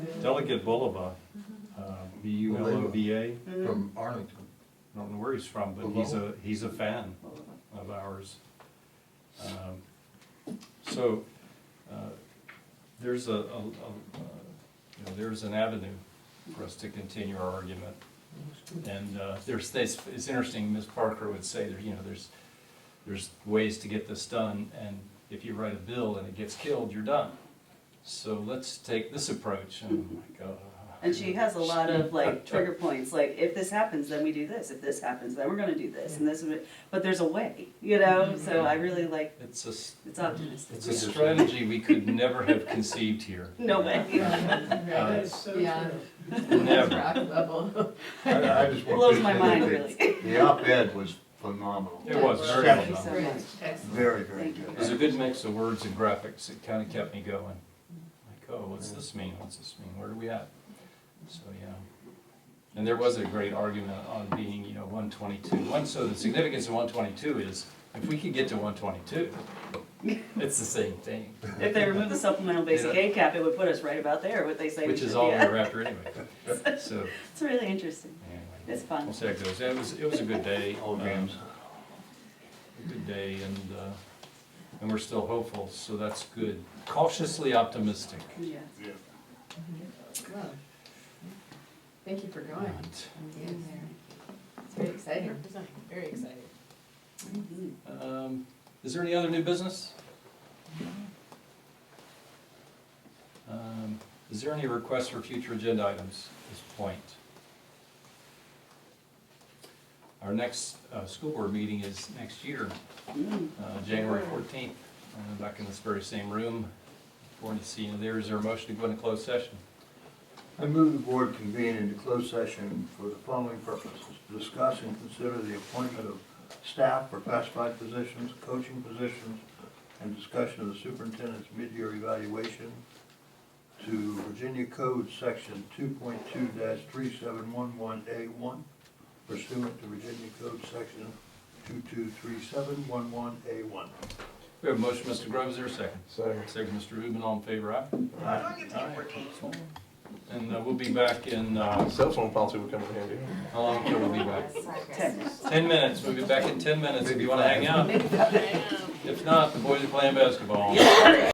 Delegate Bulova, uh, B U L O V A, Mm-hmm. from Arlington. don't know where he's from, but he's a, he's a fan of ours. Um, So, uh, there's a, a- a- uh, you know, there's an avenue for us to continue our argument. And uh, there's, this- it's interesting, Ms. Parker would say, there, you know, there's, there's ways to get this done, and if you write a bill and it gets killed, you're done. So let's take this approach, and oh my God. And she has a lot of like trigger points, like if this happens, then we do this, if this happens, then we're gonna do this, and this, is- but there's a way, you know, so I really like, It's a, s- it's optimistic. it's a strategy we could never have conceived here. No way. Uh, so Yeah. Never. Rock level. I- I just It want blows to my say mind, that really. The op-ed was phenomenal. It was very Thank you well so done. much. Very, very Thank you. good. It was a good mix of words and graphics. It kind of kept me going. Like, oh, what's this mean? What's this mean? Where are we at? So, yeah. And there was a great argument on being, you know, 122. One, so the significance of 122 is if we could get to 122, it's the same thing, If they remove the supplemental basic aid cap, it would put us right about there, what they say we which should is be all we at. we're after anyway. So, It's really interesting. anyway. It's fun. We'll see how it goes. It was, it was a good day. All Um, games. a good day and, uh, and we're still hopeful, so that's good. Cautiously optimistic. Yeah. Well, Thank you for going. And, and being there. It's very exciting. Very exciting. um, Is there any other new business? Um, Is there any requests for future agenda items at this point? Our next uh, school board meeting is next year, Mm. uh, January 14th, uh, back in this very same room. Going to see you there. Is there a motion to go into closed session? I move the board convene into closed session for the following purposes. Discuss and consider the appointment of staff for classified positions, coaching positions, and discussion of the superintendent's mid-year evaluation to Virginia Code Section two point two three seven one one A one pursuant to Virginia Code Section two two three seven one one A one. We have a motion, Mr. Grove, is there a second? Second. Second, Mr. Rubin, all in favor, aye? Aye. And uh, we'll be back in, uh, Cell phone policy would come in handy. how long till we'll be back? Ten Ten minutes, we'll be back in ten minutes if you wanna hang out. If not, the boys are playing basketball.